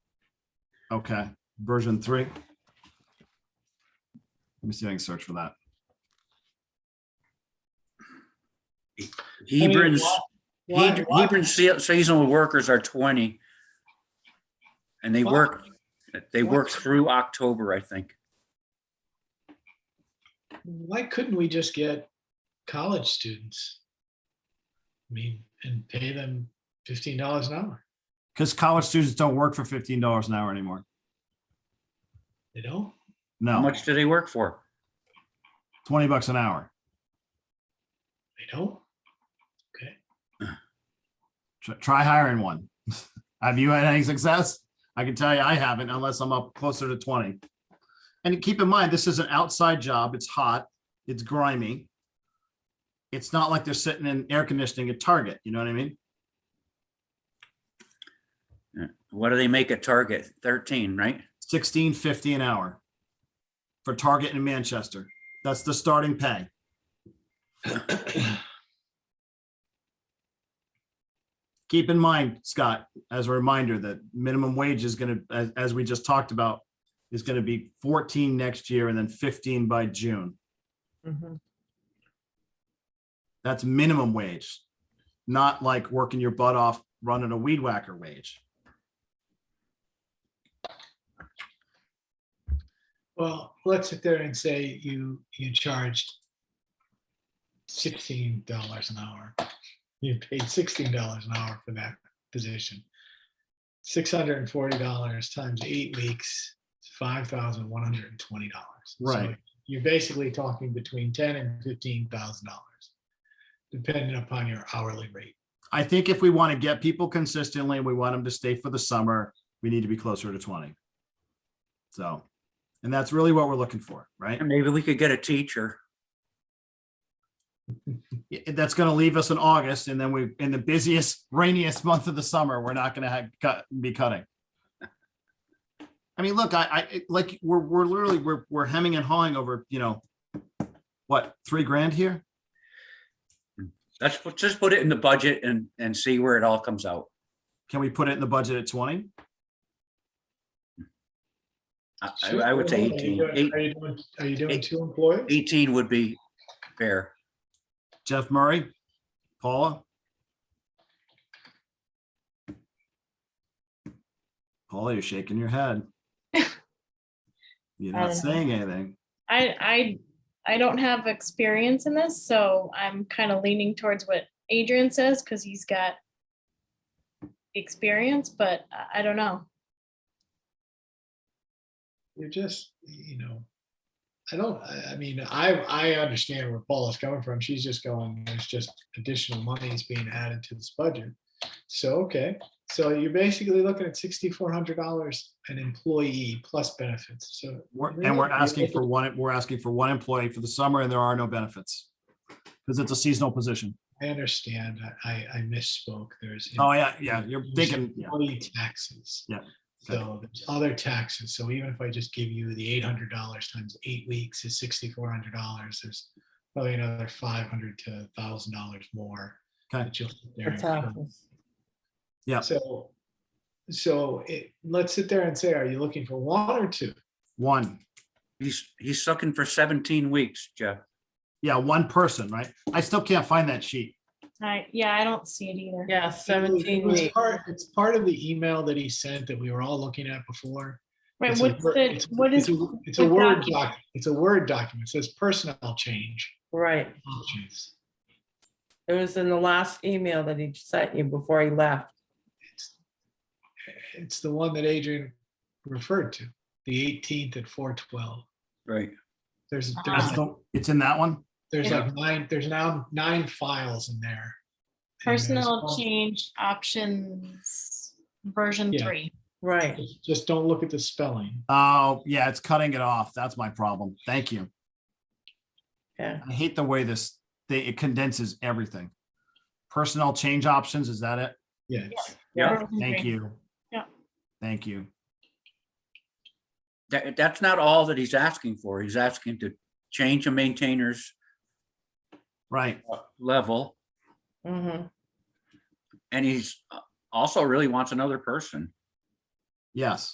Okay, version three. Let me see if I can search for that. Hebron's, why- Heb- why- Hebron's se- seasonal workers are twenty. And they Why? work, they Why? work through October, I think. Why couldn't we just get college students? I mean, and pay them fifteen dollars an hour? Because college students don't work for fifteen dollars an hour anymore. They don't? How No, much do they work for? twenty bucks an hour. They don't? Tr- Try hiring one. Have you had any success? I can tell you I haven't unless I'm up closer to twenty. And keep in mind, this is an outside job. It's hot, it's grimy. It's not like they're sitting in air conditioning at Target, you know what I mean? What do they make at Target? Thirteen, right? Sixteen fifty an hour for Target in Manchester. That's the starting pay. keep in mind, Scott, as a reminder, that minimum wage is gonna, as, as we just talked about, is gonna be fourteen next year and then fifteen by June. That's minimum wage, not like working your butt off running a weed whacker wage. Well, let's sit there and say you, you charged sixteen dollars an hour. You paid sixteen dollars an hour for that position. Six hundred and forty dollars times eight weeks, five thousand one hundred and twenty dollars. Right. You're basically talking between ten and fifteen thousand dollars, depending upon your hourly rate. I think if we want to get people consistently, and we want them to stay for the summer, we need to be closer to twenty. So, and that's really what we're looking for, right? And maybe we could get a teacher. i- that's going to leave us in August, and then we, in the busiest, rainiest month of the summer, we're not going to have, cut, be cutting. I mean, look, I, I, it- like, we're, we're literally, we're, we're hemming and hawing over, you know, what, three grand here? Let's put- just put it in the budget and, and see where it all comes out. Can we put it in the budget at twenty? I, I- I would say Are you eighteen. doing- Eight- Are you doing, are you doing eight- two employees? 18 would be fair. Jeff Murray, Paula? Paula, you're shaking your head. You're not I don't know. saying anything. I, I, I don't have experience in this, so I'm kind of leaning towards what Adrian says, because he's got experience, but I, I don't know. you're just, you know, I don't, I, I mean, I, I understand where Paula's coming from. She's just going, there's just additional monies being added to this budget. So, okay, so you're basically looking at sixty-four hundred dollars an employee plus benefits. So, We're- Really? And we're You're asking looking- for one, we're asking for one employee for the summer and there are no benefits. Because it's a seasonal position. I understand, I, I I misspoke. There's. Oh, yeah, yeah, you're there's thinking, yeah, Employee taxes. Yeah, So there's other taxes. So even if I just give you the eight hundred dollars times eight weeks is sixty-four hundred dollars, there's probably another five hundred to thousand dollars more. Okay. that you'll sit there for and cover. taxes. Yeah. So, so it, let's sit there and say, are you looking for one or two? one, He's, he's sucking for 17 weeks, Jeff. yeah, one person, right? I still can't find that sheet. I, yeah, I don't see it either. Yeah, It seventeen was weeks. part- It's part of the email that he sent that we were all looking at before. Right, It's a what's wor- the, it's- what it's is, a- It's a the Word document? doc, it's a Word document. It says personnel change. right. options. It was in the last email that he sent you before he left. It's- It's the one that Adrian referred to, the eighteenth at four twelve. Right. There's, Ah. there's, It's like- the- it's in that one? there's Yeah. like nine, there's now nine files in there. And there's personnel one- change options, version Yeah. three. Right. just- Just don't look at the spelling. Oh, yeah, it's cutting it off. That's my problem. Thank you. Yeah. I hate the way this, they, it condenses everything. Personnel change options, is that it? Yes. Yeah. Version Thank three. you. Yeah. Thank you. That, that's not all that he's asking for. He's asking to change a maintainer's Right, level. Mm-hmm. And he's uh, also really wants another person. yes.